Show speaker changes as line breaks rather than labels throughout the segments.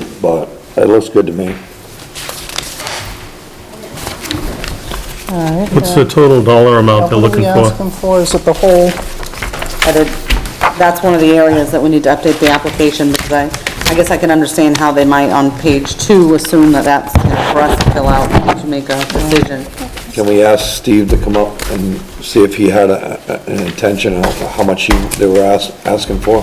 spot. That looks good to me.
All right.
What's the total dollar amount they're looking
What are we
for?
asking for? Is it the whole,
But it- that's one of the areas that we need to update the application, because I, I guess I can understand how they might on page two assume that that's you know, for us to fill out to make a decision.
Can we ask Steve to come up and see if he had a, a- an intention of how much he, they were ask, asking for?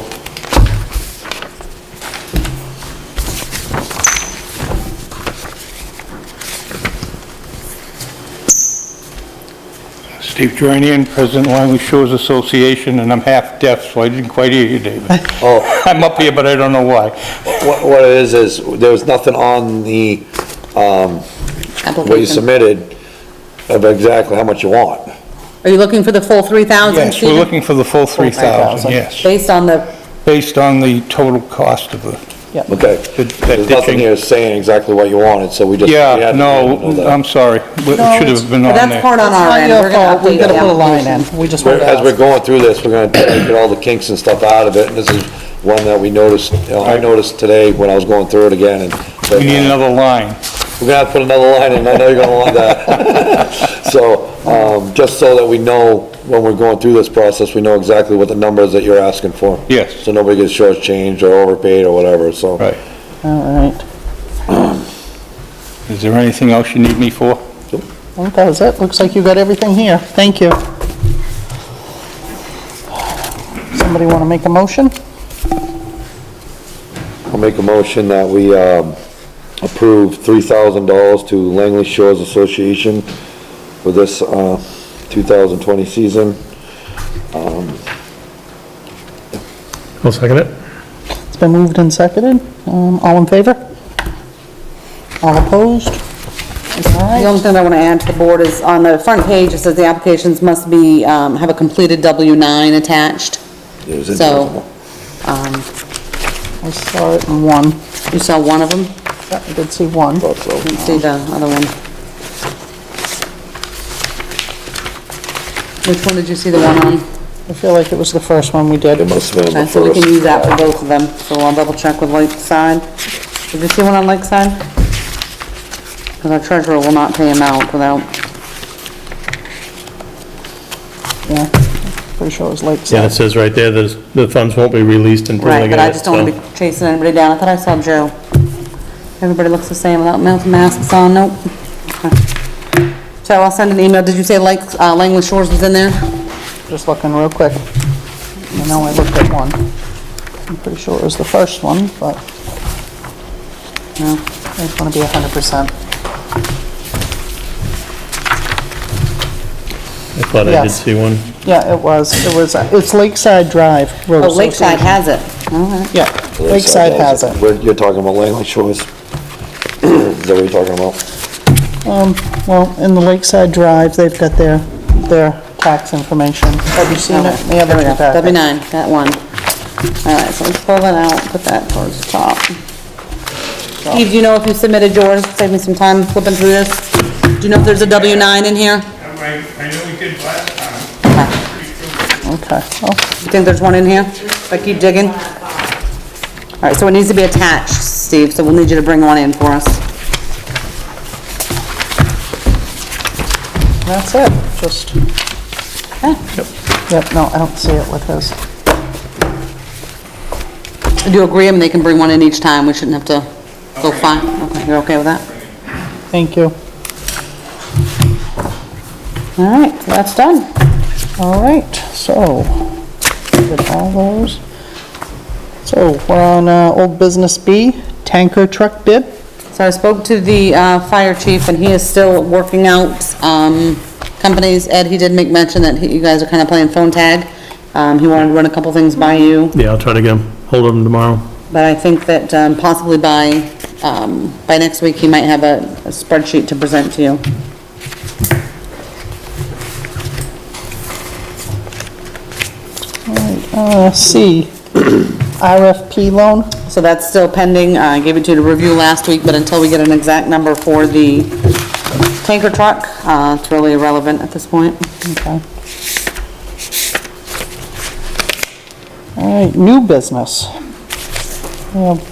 Steve Geranian, President Langley Shores Association, and I'm half-deaf, so I didn't quite hear you, David.
Oh,
I'm up here, but I don't know why.
what, what it is, is there was nothing on the, um, what you
Application.
submitted of exactly how much you want.
Are you looking for the full three thousand,
Yes, we're looking for the full 3,000,
3,000.
yes,
Based on the,
based on the total cost of the,
yeah.
Okay.
That- that
There's nothing
ditching.
here saying exactly what you wanted, so we just. we
yeah,
had to know
no, um,
that.
I'm sorry,
No,
it should have been
but
on
that's
there.
part on
It's
our
not
end.
your
We're gonna
fault. We
update
gotta
the
put a line
application.
in, we just
We're-
wanted to
As we're
ask.
going through this, we're gonna try to get all the kinks and stuff out of it, and this is one that we noticed, you know, I noticed today when I was going through it again, and. but,
We need
uh,
another line.
We're gonna have to put another line in, I know you're gonna want that. So, um, just so that we know, when we're going through this process, we know exactly what the numbers that you're asking for.
Yes.
So nobody gets shortchanged or overpaid or whatever, so.
Right.
All right,
Is there anything else you need me for?
I think that was it, looks like you got everything here, thank you. Somebody want to make a motion?
I'll make a motion that we, um, approve three thousand dollars to Langley Shores Association for this, uh, two thousand twenty season.
I'll second it.
It's been moved and seconded, um, all in favor? All opposed?
The
All right,
only thing I want to add to the board is on the front page, it says the applications must be, um, have a completed W nine attached.
It was
So,
interesting.
um,
I saw it in one,
you saw one of them?
Yeah, I did see one.
Thought so.
Didn't see the other one. Which one did you see the one on?
I feel like it was the first one we did.
It must have been
Okay,
the
so we can
first.
use that for both of them, so I'll double check with Lakeside. Did you see one on Lakeside? Because our treasurer will not pay him out without,
Yeah, pretty sure it was
Yeah, it
Lakeside.
says right there, there's, the funds won't be released until they
right,
get
but I
it,
just don't want to
so.
be chasing anybody down, I thought I saw Joe. Everybody looks the same without mouth masks on, nope. Okay. So I'll send an email, did you say Lake, uh, Langley Shores was in there?
Just looking real quick. I know I looked at one. I'm pretty sure it was the first one, but
No.
I just want to be 100%.
I thought I did
Yes.
see one.
Yeah, it was, it was, uh, it's Lakeside Drive Road
Oh, Lakeside
Association.
has it, all right.
Yeah, Lakeside has it.
We're- You're talking about Langley Shores? Is that what you're talking about?
Um, well, in the Lakeside Drive, they've got their, their tax information. Have you seen it? They have it in your packet.
W nine, that one. All right, so let's pull that out, put that towards the top. Steve, do you know if you submitted yours? Save me some time flipping through this. Do you know if there's a W nine in here?
I, I know we did last time.
Okay, oh,
You think there's one in here? If I keep digging? All right, so it needs to be attached, Steve, so we'll need you to bring one in for us.
that's it, just. Yep, no, I don't see it with his.
Do you agree? I mean, they can bring one in each time. We shouldn't have to go find. Okay, you're okay with that?
Thank you.
All right, so that's done.
All right, so, did all those. So, we're on uh, Old Business B, tanker truck bid.
So I spoke to the uh, fire chief, and he is still working out um, companies. Ed, he did make mention that he- you guys are kind of playing phone tag. Um, He wanted to run a couple things by you,
Yeah, I'll try to get them, hold them tomorrow.
but I think that um, possibly by, um, by next week, he might have a a spreadsheet to present to you.
Uh, C, RFP loan.
So that's still pending. Uh, I gave it to you to review last week, but until we get an exact number for the tanker truck, uh, it's really irrelevant at this point.
Okay. All right, new business. We have